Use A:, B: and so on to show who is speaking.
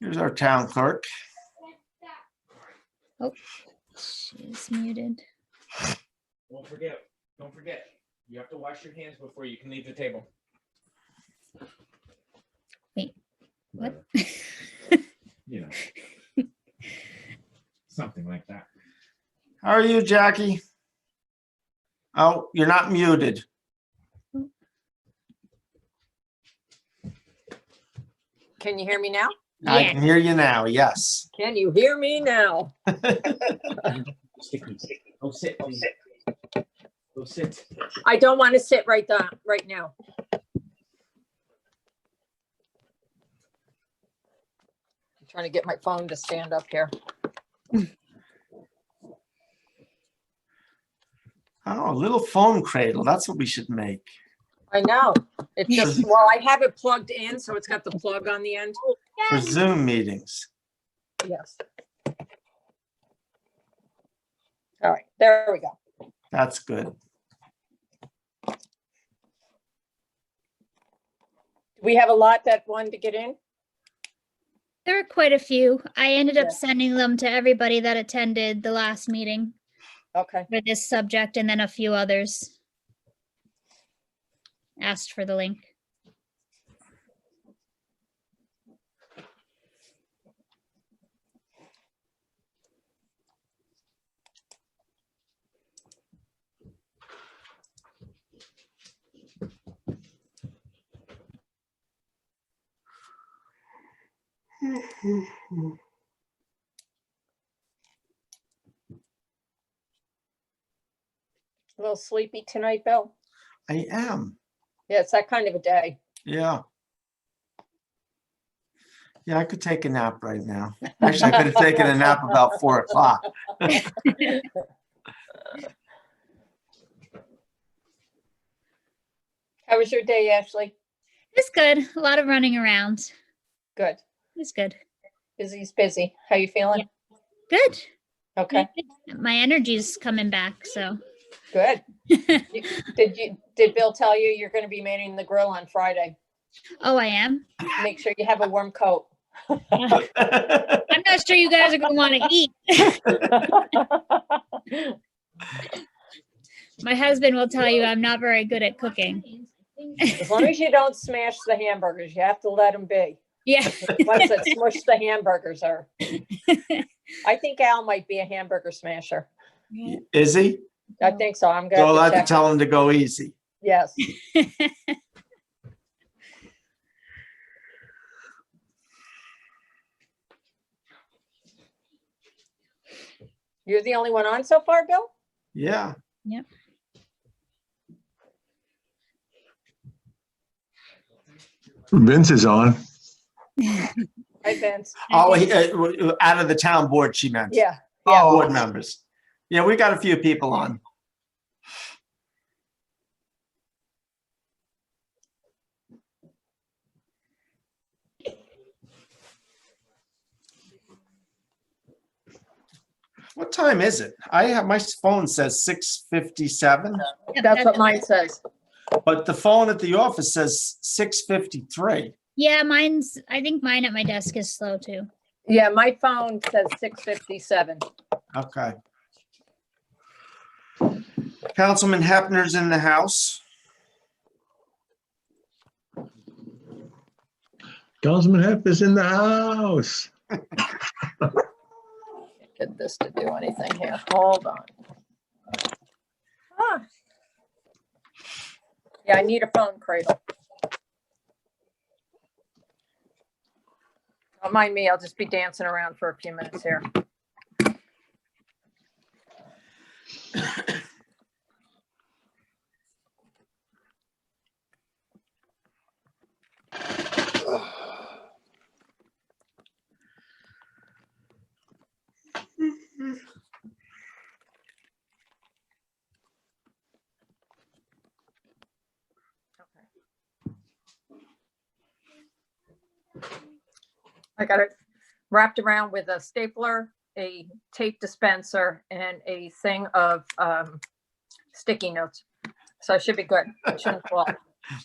A: Here's our town clerk.
B: She's muted.
C: Don't forget, don't forget, you have to wash your hands before you can leave the table.
B: What?
C: You know. Something like that.
A: How are you, Jackie? Oh, you're not muted.
D: Can you hear me now?
A: I
B: Yeah.
A: can hear you now, yes.
D: Can you hear me now?
C: Sticky. Go sit, please. Go sit.
D: I don't want to sit right down, right now. I'm trying to get my phone to stand up here.
A: Oh, a little foam cradle, that's what we should make.
D: I know. It just, well, I have it plugged in, so it's got the plug on the end.
A: For Zoom meetings.
D: Yes. All right, there we go.
A: That's good.
D: We have a lot that wanted to get in.
B: There are quite a few. I ended up
D: Yeah.
B: sending them to everybody that attended the last meeting
D: Okay,
B: for this subject and then a few others. Asked for the link.
D: a little sleepy tonight, Bill.
A: I am,
D: Yeah, it's that kind of a day.
A: yeah. Yeah, I could take a nap right now. Actually, I could have taken a nap about four o'clock.
D: How was your day, Ashley?
B: It's good. A lot of running around.
D: Good.
B: It's good.
D: Busy's busy. How you feeling?
B: Good.
D: Okay,
B: My energy's coming back, so
D: good. You- Did you, did Bill tell you you're gonna be manning the grill on Friday?
B: oh, I am.
D: Make sure you have a warm coat.
B: I'm not sure you guys are gonna want to eat. My husband will tell you I'm not very good at cooking.
D: As long as you don't smash the hamburgers, you have to let them be.
B: Yeah,
D: What's it, smush the hamburgers are. I think Al might be a hamburger smasher.
A: Is he?
D: I think so. I'm
A: So I'll
D: gonna
A: have to
D: check.
A: tell him to go easy.
D: Yes. You're the only one on so far, Bill?
A: Yeah.
B: Yep.
E: Vince is on.
D: Hi, Vince.
A: Oh, he- uh, w- w- out of the town board, she meant.
D: Yeah,
A: Oh. Board members. Yeah, we got a few people on. What time is it? I have, my phone says six fifty-seven,
B: Yep,
D: that's what mine says.
A: but the phone at the office says six fifty-three.
B: Yeah, mine's, I think mine at my desk is slow too.
D: Yeah, my phone says six fifty-seven.
A: Okay. Councilman Hepner's in the house.
E: Councilman Hep is in the house.
D: Get this to do anything here. Hold on. Ah. Yeah, I need a phone cradle. Don't mind me, I'll just be dancing around for a few minutes here. I got it wrapped around with a stapler, a tape dispenser, and a thing of um, sticky notes. So I should be good. It shouldn't fall.